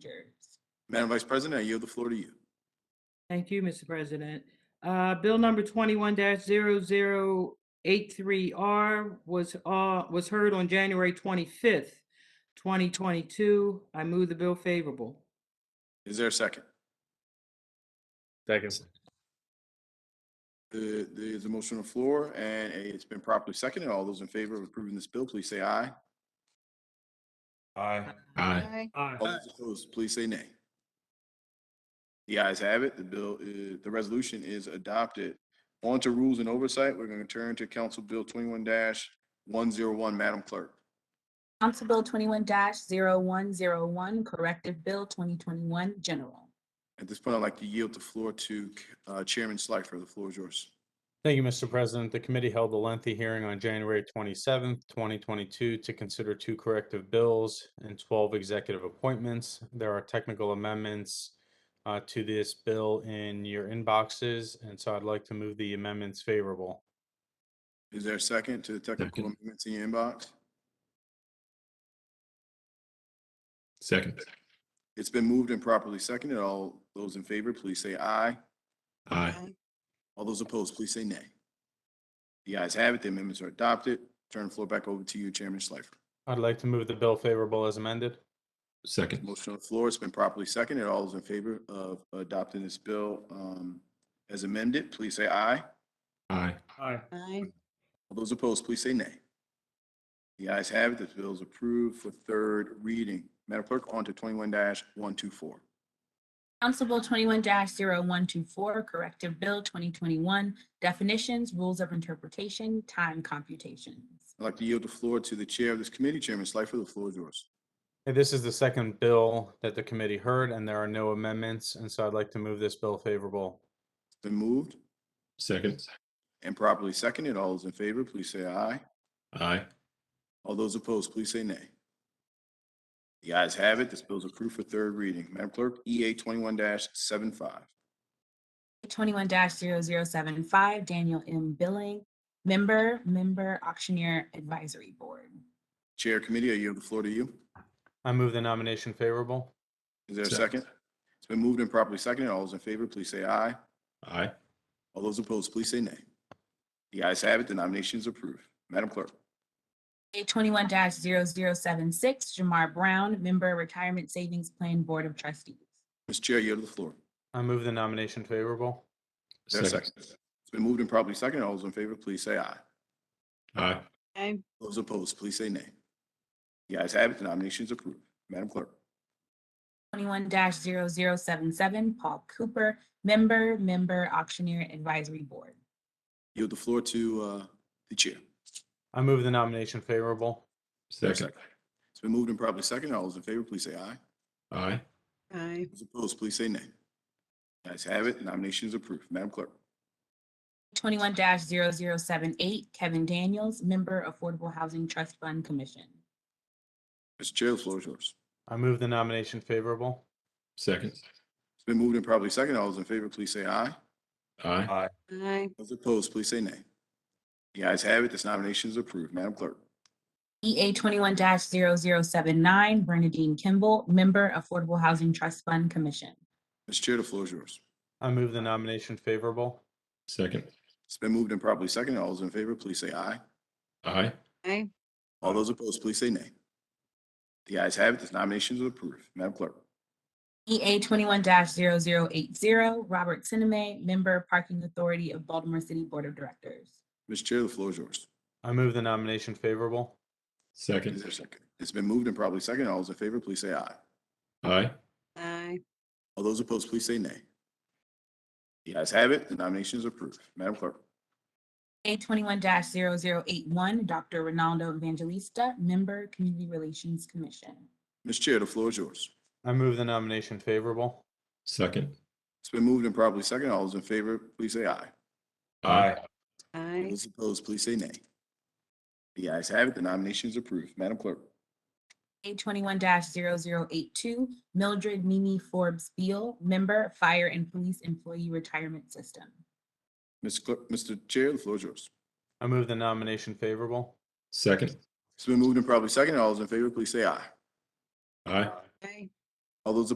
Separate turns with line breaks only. procedures.
Madam Vice President, I yield the floor to you.
Thank you, Mr. President. Uh, Bill number twenty-one 83 R was, uh, was heard on January twenty-fifth, twenty twenty-two. I move the bill favorable.
Is there a second?
Second.
The- There's a motion on the floor, and it's been properly seconded. All those in favor of approving this bill, please say aye.
Aye.
Aye.
All those opposed, please say nay. The ayes have it. The bill, is- the resolution is adopted. On to rules and oversight. We're going to turn to Council Bill twenty-one one zero one. Madam Clerk.
Council Bill twenty-one 101 corrective bill twenty twenty-one, general.
At this point, I'd like to yield the floor to uh, Chairman Schleifer. The floor is yours.
Thank you, Mr. President. The committee held a lengthy hearing on January twenty-seventh, twenty twenty-two to consider two corrective bills and twelve executive appointments. There are technical amendments uh, to this bill in your inboxes, and so I'd like to move the amendments favorable.
Is there a second to the technical
Second.
amendments in your inbox?
Second.
It's been moved and properly seconded. All those in favor, please say aye.
Aye.
All those opposed, please say nay. The ayes have it. The amendments are adopted. Turn the floor back over to you, Chairman Schleifer.
I'd like to move the bill favorable as amended.
Second.
Motion on the floor. It's been properly seconded. All those in favor of adopting this bill um, as amended, please say aye.
Aye.
Aye.
All those opposed, please say nay. The ayes have it. This bill is approved for third reading. Madam Clerk, on to twenty-one one two four.
Council Bill twenty-one 124 corrective bill twenty twenty-one, definitions, rules of interpretation, time computations.
I'd like to yield the floor to the Chair of this committee, Chairman Schleifer. The floor is yours.
This is the second bill that the committee heard, and there are no amendments, and so I'd like to move this bill favorable.
It's been moved
Second.
and properly seconded. All those in favor, please say aye.
Aye.
All those opposed, please say nay. The ayes have it. This bill is approved for third reading. Madam Clerk, EA twenty-one 75
Twenty-one 75 Daniel M. Billing, member, member auctioneer advisory board.
Chair Committee, I yield the floor to you.
I move the nomination favorable.
Is there a second?
Second.
It's been moved and properly seconded. All those in favor, please say aye.
Aye.
All those opposed, please say nay. The ayes have it. The nomination is approved. Madam Clerk,
A twenty-one 76 Jamar Brown, member retirement savings plan board of trustees.
Mr. Chair, I yield the floor.
I move the nomination favorable.
Is there a second? It's been moved and properly seconded. All those in favor, please say aye.
Aye.
Those opposed, please say nay. The ayes have it. The nomination is approved. Madam Clerk,
Twenty-one 77 Paul Cooper, member, member auctioneer advisory board.
yield the floor to uh, the Chair.
I move the nomination favorable.
Is there a
Second.
It's been moved and properly seconded. All those in favor, please say aye.
Aye.
Aye.
Those opposed, please say nay. The ayes have it. The nomination is approved. Madam Clerk,
Twenty-one 78 Kevin Daniels, member Affordable Housing Trust Fund Commission.
Mr. Chair, the floor is yours.
I move the nomination favorable.
Second.
It's been moved and properly seconded. All those in favor, please say aye.
Aye.
Aye.
Those opposed, please say nay. The ayes have it. This nomination is approved. Madam Clerk,
EA E twenty-one 79 Bernadine Kimball, member Affordable Housing Trust Fund Commission.
Mr. Chair, the floor is yours.
I move the nomination favorable.
Second.
It's been moved and properly seconded. All those in favor, please say aye.
Aye.
Aye.
All those opposed, please say nay. The ayes have it. This nomination is approved. Madam Clerk,
EA E twenty-one 80 Robert Sinema, member Parking Authority of Baltimore City Board of Directors.
Mr. Chair, the floor is yours.
I move the nomination favorable.
Is there a
Second.
second? It's been moved and properly seconded. All those in favor, please say aye.
Aye.
Aye.
All those opposed, please say nay. The ayes have it. The nomination is approved. Madam Clerk,
A twenty-one 81 Dr. Ronaldo Evangelista, member Community Relations Commission.
Mr. Chair, the floor is yours.
I move the nomination favorable.
Second.
It's been moved and properly seconded. All those in favor, please say aye.
Aye.
All
Aye.
those opposed, please say nay. The ayes have it. The nomination is approved. Madam Clerk,
A twenty-one 82 Mildred Mimi Forbes Beal, member Fire and Police Employee Retirement System.
Mr. Clerk, Mr. Chair, the floor is yours.
I move the nomination favorable.
Second.
It's been moved and properly seconded. All those in favor, please say aye.
Aye.
Aye.
All those